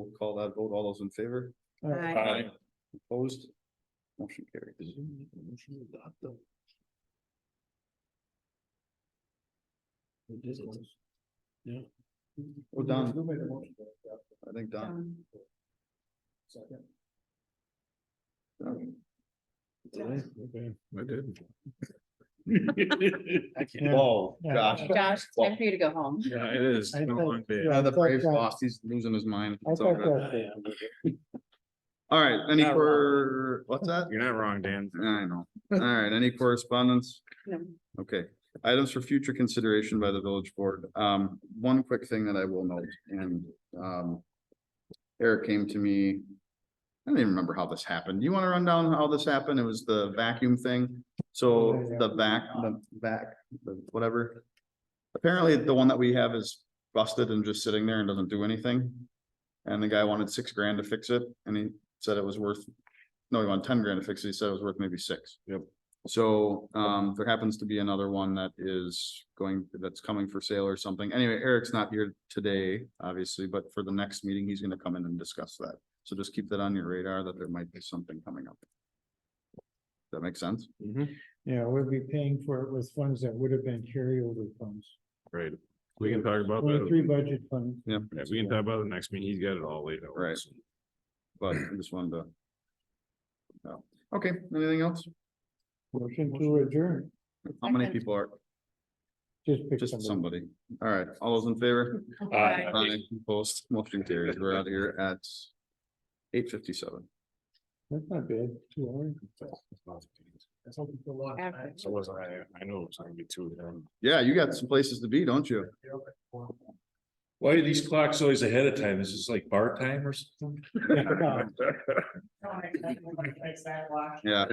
We'll call that vote. All those in favor? Aye. Opposed? Motion carried. Yeah. Well, Don- I think Don. Um, Don. Don. I did. I can't. Oh, gosh. Josh, it's time Well, for you to go home. Yeah, it is. I Been a thought- long day. yeah. yeah, The I thought Braves that- lost. He's losing his mind. I It's all thought good. that, All right, any Not for, what's that? You're not wrong, Dan. I know. All right, any correspondence? No. Okay, items for future consideration by the village board. Um, one quick thing that I will note and, um. Eric came to me. I don't even remember how this happened. Do you want to run down how this happened? It was the vacuum thing. So the vac, the vac, the whatever. Apparently, the one that we have is busted and just sitting there and doesn't do anything. And the guy wanted six grand to fix it and he said it was worth, no, he wanted ten grand to fix it. He said it was worth maybe six. Yep. So um, there happens to be another one that is going, that's coming for sale or something. Anyway, Eric's not here today, obviously, but for the next meeting, he's gonna come in and discuss that. So just keep that on your radar that there might be something coming up. That makes sense? yeah, we'll be paying for it with funds that would have been carryover funds, Right. We can talk about twenty-three that. budget funds. Yeah, Yeah, we can talk about the next meeting. He's got it all laid out. Right. but I just wanted to. No. Okay, anything else? Motion to adjourn, How many Second. people are, just pick just somebody? somebody. All right, all those in favor? Aye. Aye. Post, motion carries. We're out of here at eight fifty-seven. That's not bad, two hours. After. So was I, I know it's gonna be two of them. Yeah, you got some places to be, don't you? Why are these clocks always ahead of time? Is this like bar time or something? Yeah.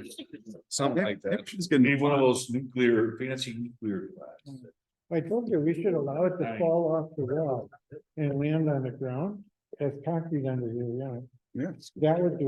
Something like that. It's gonna be Need one of fun. those nuclear, fancy nuclear clocks. I told you, we should allow it to Aye. fall off the wall and land on the ground, that's concrete under here, yeah, Yeah. that would do